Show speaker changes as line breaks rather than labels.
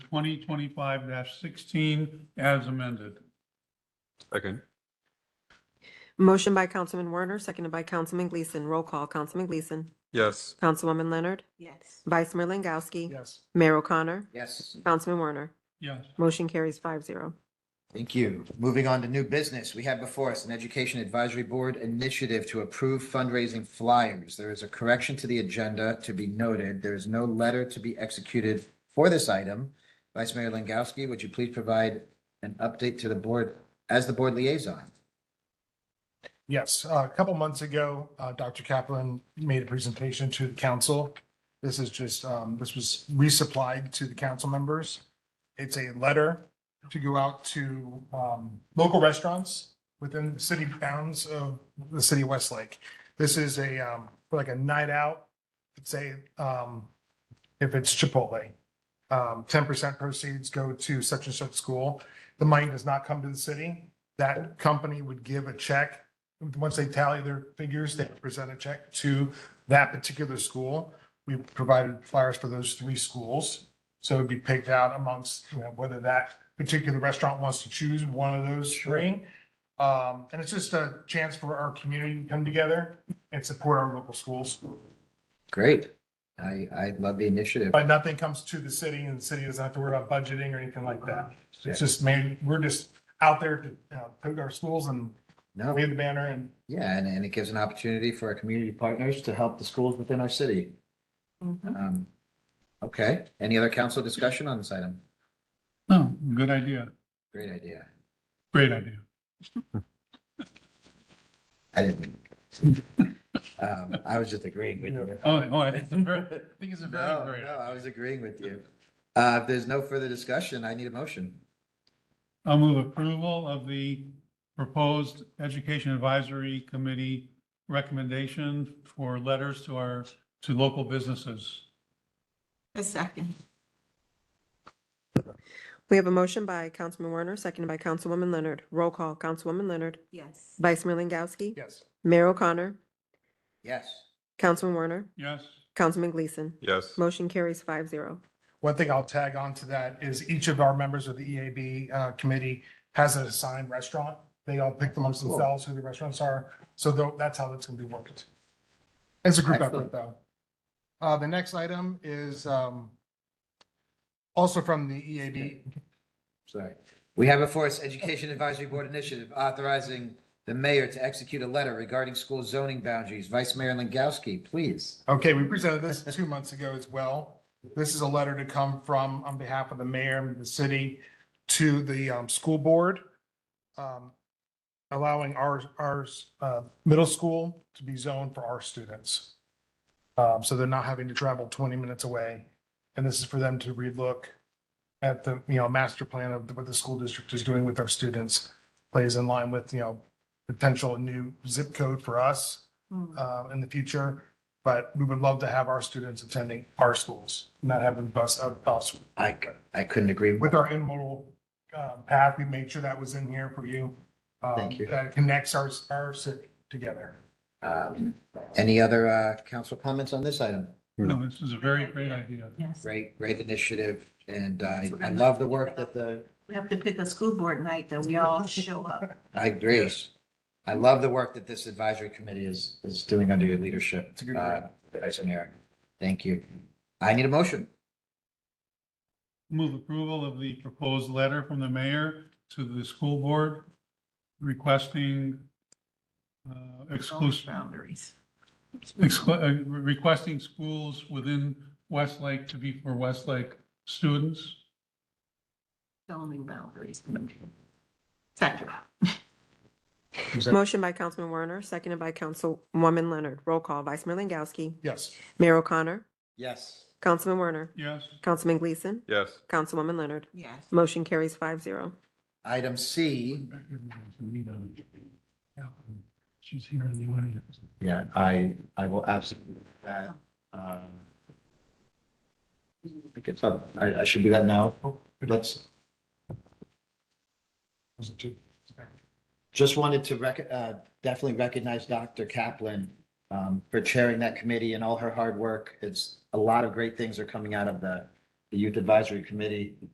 2025-16 as amended.
Second.
Motion by Councilman Werner, seconded by Councilman Gleason. Roll call, Councilman Gleason.
Yes.
Councilwoman Leonard.
Yes.
Vice Mayor Langowski.
Yes.
Mayor O'Connor.
Yes.
Councilman Werner.
Yes,
Motion carries five zero.
Thank you. Moving on to new business, we have before us an Education Advisory Board initiative to approve fundraising flyers. There is a correction to the agenda to be noted. There is no letter to be executed for this item. Vice Mayor Langowski, would you please provide an update to the board as the board liaison?
Yes, uh, a couple months ago, uh, Dr. Kaplan made a presentation to the council. This is just, um, this was resupplied to the council members. It's a letter to go out to um, local restaurants within the city bounds of the city of Westlake. This is a, um, for like a night out, say, um, if it's Chipotle. um, Ten percent proceeds go to such and such school. The money does not come to the city. That company would give a check once they tally their figures, they present a check to that particular school. We provided flyers for those three schools. So it'd be picked out amongst, you know, whether that particular restaurant wants to choose one of those three. Um, and it's just a chance for our community to come together and support our local schools.
Great. I, I love the initiative.
But nothing comes to the city and the city doesn't have to worry about budgeting or anything like that. It's just, man, we're just out there to, you know, put our schools and
No,
wave the banner and
yeah, and, and it gives an opportunity for our community partners to help the schools within our city. Um, Okay, any other council discussion on this item?
no, Oh, good idea,
Great idea.
great idea.
I didn't. mean- Um, I was just agreeing with you.
Oh, oh, I think it's a very, I think it's a
No,
very
no,
great.
I was agreeing with you. Uh, if there's no further discussion, I need a motion.
I'll move approval of the proposed Education Advisory Committee recommendation for letters to our, to local businesses.
A second.
We have a motion by Councilman Werner, seconded by Councilwoman Leonard. Roll call, Councilwoman Leonard.
Yes.
Vice Mayor Langowski.
yes,
Mayor O'Connor.
Yes,
Councilman Werner.
Yes,
Councilman Gleason.
Yes.
Motion carries five zero.
One thing I'll tag on to that is each of our members of the EAB uh, committee has an assigned restaurant. They all pick amongst
Cool.
themselves who the restaurants are. So tho- that's how that's going to be worked. It's a group effort,
Excellent.
though. Uh, The next item is um, also from the E EAB.
sorry. We have before us Education Advisory Board Initiative authorizing the mayor to execute a letter regarding school zoning boundaries. Vice Mayor Langowski, please.
Okay, we presented this two months ago as well. This is a letter to come from, on behalf of the mayor and the city to the um, school board, um, allowing our, our uh, middle school to be zoned for our students. Um, So they're not having to travel 20 minutes away. And this is for them to relook at the, you know, master plan of what the school district is doing with our students, plays in line with, you know, potential new zip code for us
Mm.
uh, in the future, but we would love to have our students attending our schools, not having bus, uh, bus.
I, I couldn't agree more.
With our intermodal uh, path, we made sure that was in here for you. um,
Thank you.
That connects our, our city together.
Um, Any other uh, council comments on this item?
no, this is a very great idea.
Yes.
Great, great initiative, and I, I love the work that the
We have to pick a school board night that we all show up.
I agree. I love the work that this advisory committee is, is doing under your leadership,
It's a good
uh, Vice Mayor. Thank you. I need a motion.
Move approval of the proposed letter from the mayor to the school board requesting uh, exclusive,
Boundaries.
exclu- uh, requesting schools within Westlake to be for Westlake students.
Zoning boundaries. Second.
Motion by Councilman Werner, seconded by Councilwoman Leonard. Roll call, Vice Mayor Langowski.
Yes.
Mayor O'Connor.
Yes.
Councilman Werner.
Yes,
Councilman Gleason.
Yes.
Councilwoman Leonard.
Yes.
Motion carries five zero.
Item C.
She's here in the audience.
Yeah, I, I will absolutely, do that, um, I guess, uh, I, I should do that now. Let's, Just wanted to rec- uh, definitely recognize Dr. Kaplan, um, for chairing that committee and all her hard work. It's, a lot of great things are coming out of the, the Youth Advisory Committee.